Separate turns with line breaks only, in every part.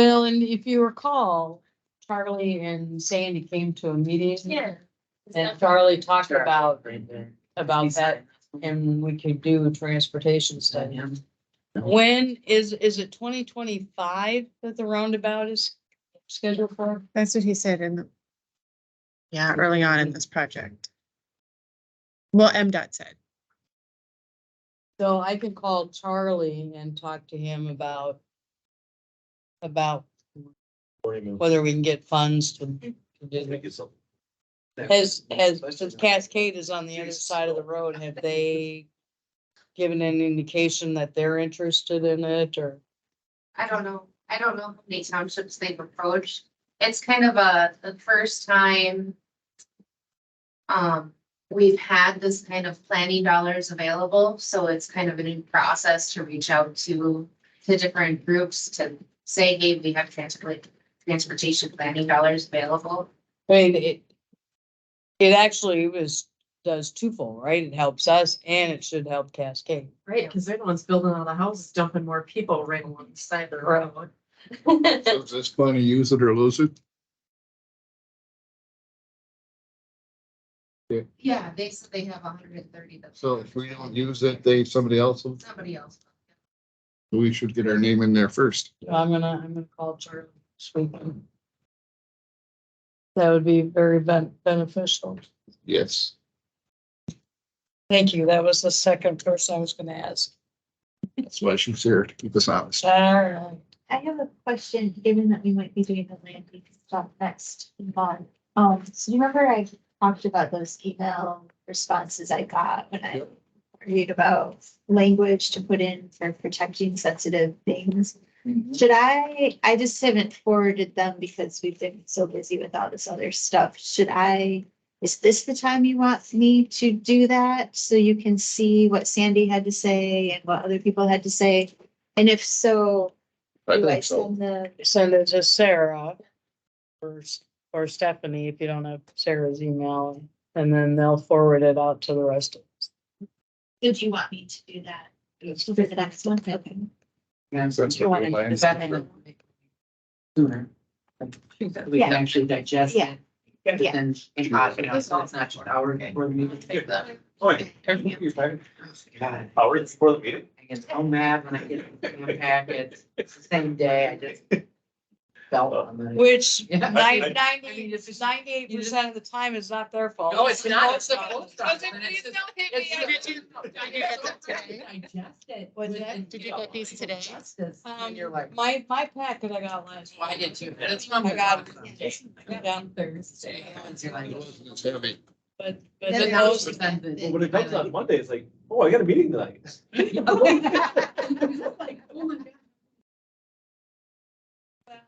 when, if you recall, Charlie and Sandy came to a meeting.
Yeah.
And Charlie talked
Sure.
about,
Right there.
about that and we could do a transportation study. When is, is it twenty twenty-five that the roundabout is scheduled for?
That's what he said in, the yeah, early on in this project. Well, MDOT said,
So I can call Charlie and talk to him about, about whether we can get funds to. to do this. Has, has, since Cascade is on the other side of the road, have they given an indication that they're interested in it or?
I don't know, I don't know how many townships they've approached. It's kind of a, the first time. Um, we've had this kind of planning dollars available, so it's kind of a new process to reach out to, to different groups to say, hey, we have transport, transportation planning dollars available.
I mean, it, it actually was, does twofold, right? It helps us and it should help Cascade.
Right, because they're the ones building all the houses, dumping more people right along the side of the road.
So Is this plan to use it or lose it?
Yeah, they said they have hundred and thirty.
So if we don't use it, they, somebody else, will-
Somebody else.
we should get our name in there first.
I'm gonna, I'm gonna call Charlie this weekend. That would be very ben- beneficial.
Yes.
Thank you. That was the second person I was gonna ask.
That's why she's here to keep us honest.
Alright.
I have a question, given that we might be doing the land use stuff next month. Um, so you remember I talked about those email responses I got when I worried about language to put in for protecting sensitive things? Should I, I just haven't forwarded them because we've been so busy with all this other stuff. Should I, is this the time you want me to do that? So you can see what Sandy had to say and what other people had to say? And if so,
I
do I
think so.
send the,
Send it to Sarah or, or Stephanie if you don't have Sarah's email, and then they'll forward it out to the rest of us.
would you want me to do that for the next one? Okay.
That's what we're planning.
Sooner. That we can actually digest
Yeah.
it. And
Yeah.
then, and, uh, you know, so it's not just our, we're meeting take them.
Oh,
Wait, you're tired?
God,
Hour before the meeting?
I get so mad when I get the packets, it's the same day, I just felt on the.
Which
Yeah.
ninety,
I mean,
ninety,
it's just-
ninety-eight percent of the time is not their fault.
No, Oh, it's not. It's the
Oh,
post office.
It's-
Digest it.
What's that?
within-
Did you get these today?
Digest this,
Um,
And you're like.
my, my packet I got last.
Why
week.
did you? That's from.
I got it.
I got it Thursday. And you're
It
like-
wasn't as heavy.
But, but
Yeah,
then
they
those,
always send it.
When it comes on Monday, it's like, oh, I got a meeting tonight.
Like, oh my God.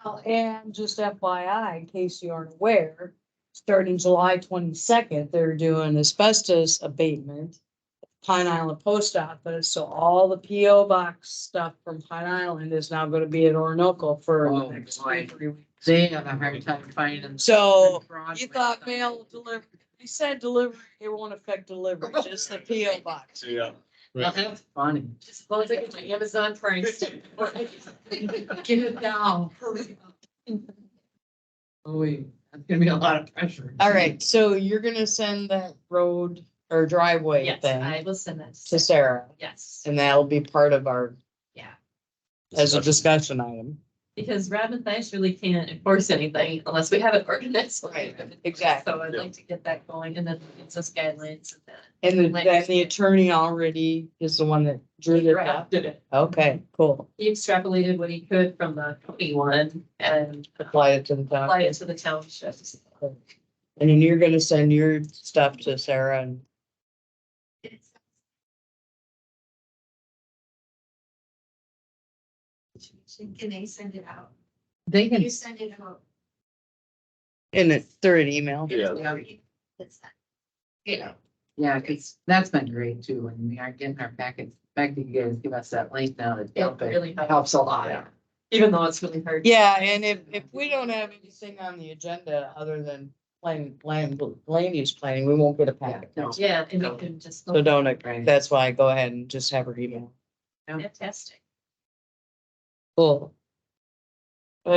Well, and just FYI, in case you aren't aware, starting July twenty-second, they're doing asbestos abatement. at Pine Island Post Office, so all the PO box stuff from Pine Island is now gonna be at Orinoco for the
Oh,
next
boy.
two, three weeks.
They have a hard time finding.
So,
Broadway.
you thought mail delivery, they said delivery, it won't affect delivery, just the PO box.
Yeah.
Well, that's funny.
Just as long as I get my Amazon Prime.
Get it down. Ooh, Oh, that's gonna be a lot of pressure.
All right, so you're gonna send that road or driveway
Yes, I
thing
will send that.
to Sarah,
Yes,
and that'll be part of our as a discussion item.
because Rob and Thais really can't enforce anything unless we have it organized.
Right, exactly.
So I'd like to get that going and then it's us guidelines and then.
And the- then the attorney already is the one that drew it up.
Drafted it.
Okay, cool.
He extrapolated what he could from the county one and
Apply it to the top.
apply it to the townships.
And then you're gonna send your stuff to Sarah and.
Can they send it out?
They
You
can,
send it out.
In it, through an email.
Yeah.
That's not-
yeah, cause that's been great too, and we are getting our packets, back to you guys, give us that link now to
Yeah,
dump it,
really helps,
helps a lot.
Yeah. even though it's really hard.
Yeah, and if, if we don't have anything on the agenda other than plan, land, land use planning, we won't get a
Yeah,
packet.
no,
Yeah, and we can just.
So don't,
Right.
that's why I go ahead and just have her email.
Fantastic.
Cool.